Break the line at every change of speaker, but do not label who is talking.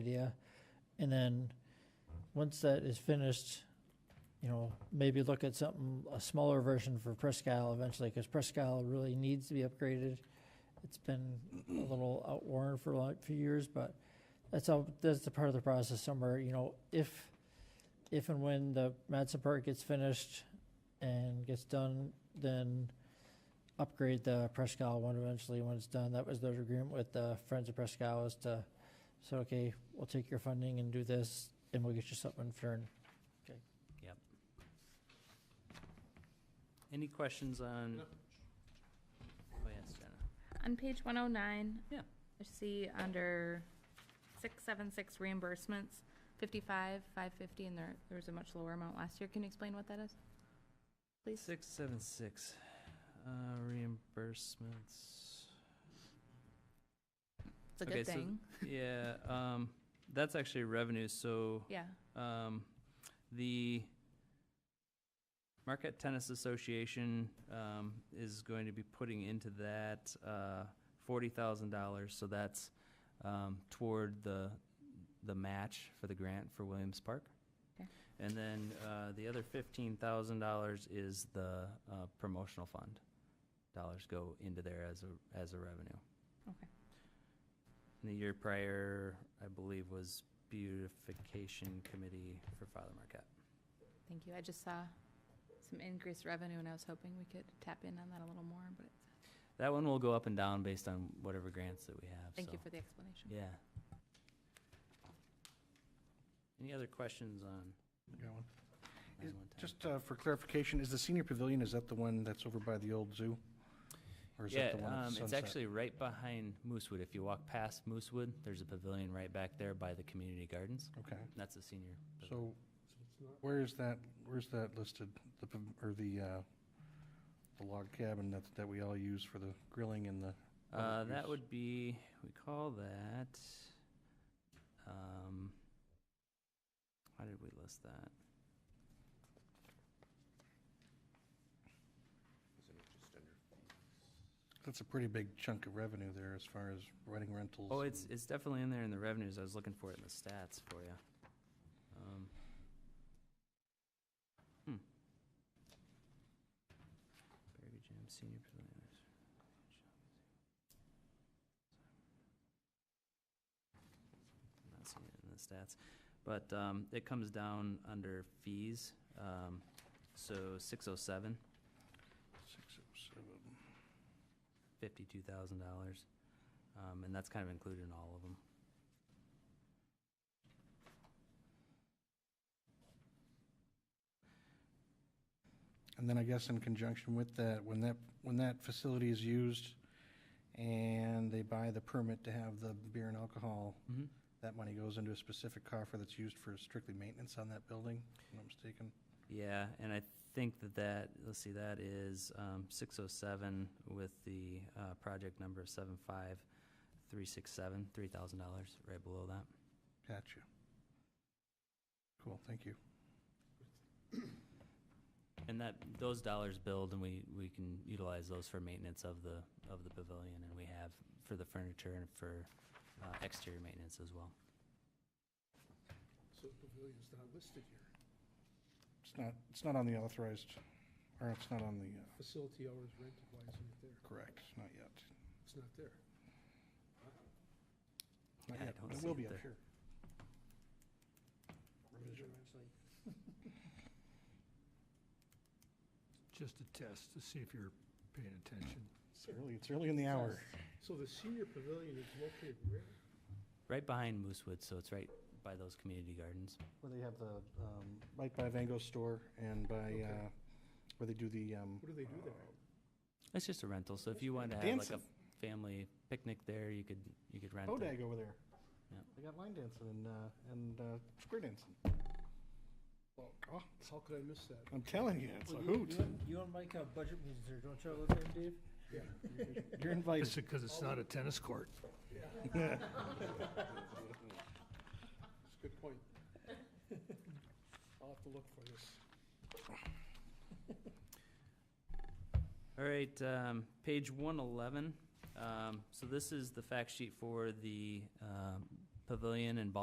idea. And then, once that is finished, you know, maybe look at something, a smaller version for Presque Isle eventually, because Presque Isle really needs to be upgraded. It's been a little outworn for a lot, few years, but that's all, that's the part of the process somewhere, you know, if, if and when the Madison Park gets finished and gets done, then upgrade the Presque Isle one eventually when it's done. That was their agreement with the Friends of Presque Isle is to, so, okay, we'll take your funding and do this, and we'll get you something in turn.
Any questions on? Oh, yes, Jenna.
On page one oh nine.
Yeah.
I see under six seven six reimbursements, fifty-five, five fifty, and there, there was a much lower amount last year. Can you explain what that is? Please?
Six, seven, six, uh, reimbursements.
It's a
okay,
good
so-
thing.
Yeah, um, that's actually revenue, so,
Yeah,
um, the Marquette Tennis Association, um, is going to be putting into that, uh, forty thousand dollars, so that's, um, toward the, the match for the grant for Williams Park.
Okay.
And then, uh, the other fifteen thousand dollars is the, uh, promotional fund. Dollars go into there as a, as a revenue.
Okay.
And the year prior, I believe, was beautification committee for Father Marquette.
thank you. I just saw some increased revenue and I was hoping we could tap in on that a little more, but
That one will go up and down based on whatever grants that we have,
thank you
so-
for the explanation.
Yeah. Any other questions on?
Got one.
911?
Just uh, for clarification, is the senior pavilion, is that the one that's over by the old zoo? Or is
Yeah,
that the one at
um, it's
Sunset?
actually right behind Moosewood. If you walk past Moosewood, there's a pavilion right back there by the community gardens.
Okay,
That's a senior. pavilion.
so where is that, where's that listed? The, pav- or the, uh, the log cabin that, that we all use for the grilling and the, public
Uh, that
use.
would be, we call that, um, how did we list that?
that's a pretty big chunk of revenue there as far as running rentals.
Oh, it's,
and-
it's definitely in there in the revenues. I was looking for it in the stats for you. Um, hmm. Berry Jam Senior Pavilion. I'm Not seeing it in the stats, but, um, it comes down under fees, um, so six oh seven,
Six oh seven.
fifty-two thousand dollars. Um, and that's kind of included in all of them.
And then I guess in conjunction with that, when that, when that facility is used and they buy the permit to have the beer and alcohol
Mm-hmm.
that money goes into a specific coffer that's used for strictly maintenance on that building, if I'm not mistaken.
Yeah, and I think that that, let's see, that is um, 607 with the uh, project number 75367, $3,000, right below that.
Gotcha. Cool, thank you.
And that, those dollars build, and we, we can utilize those for maintenance of the, of the pavilion, and we have for the furniture and for uh, exterior maintenance as well.
So the pavilion's not listed here.
It's not, it's not on the authorized, or it's not on the, uh,
Facility hours rented, why isn't it there?
correct, not yet.
It's not there.
Not
Yeah, I
yet,
don't
but it
see it
will be up
there.
here. Revision.
Just a test to see if you're paying attention.
It's early, it's early in the hour.
So the senior pavilion is located where?
Right behind Moosewood, so it's right by those community gardens.
Where they have the, um, right by Van Gogh store and by,
Okay.
uh, where they do the, um.
What do they do there?
It's just a rental, so if you wanted to have like a family picnic there, you could, you could rent it.
Bodag uh, over there.
Yeah.
They got line dancing and, uh, and, uh, square dancing. Oh, God.
How could I miss that?
I'm telling you, it's a hoot.
You and Mike have budget meetings there, don't you, Olivia and Dave?
Yeah.
You're invited.
Is it because it's not a tennis court? It's a good point. I'll have to look for this.
All right, um, page one eleven. Um, so this is the fact sheet for the, um, pavilion and ball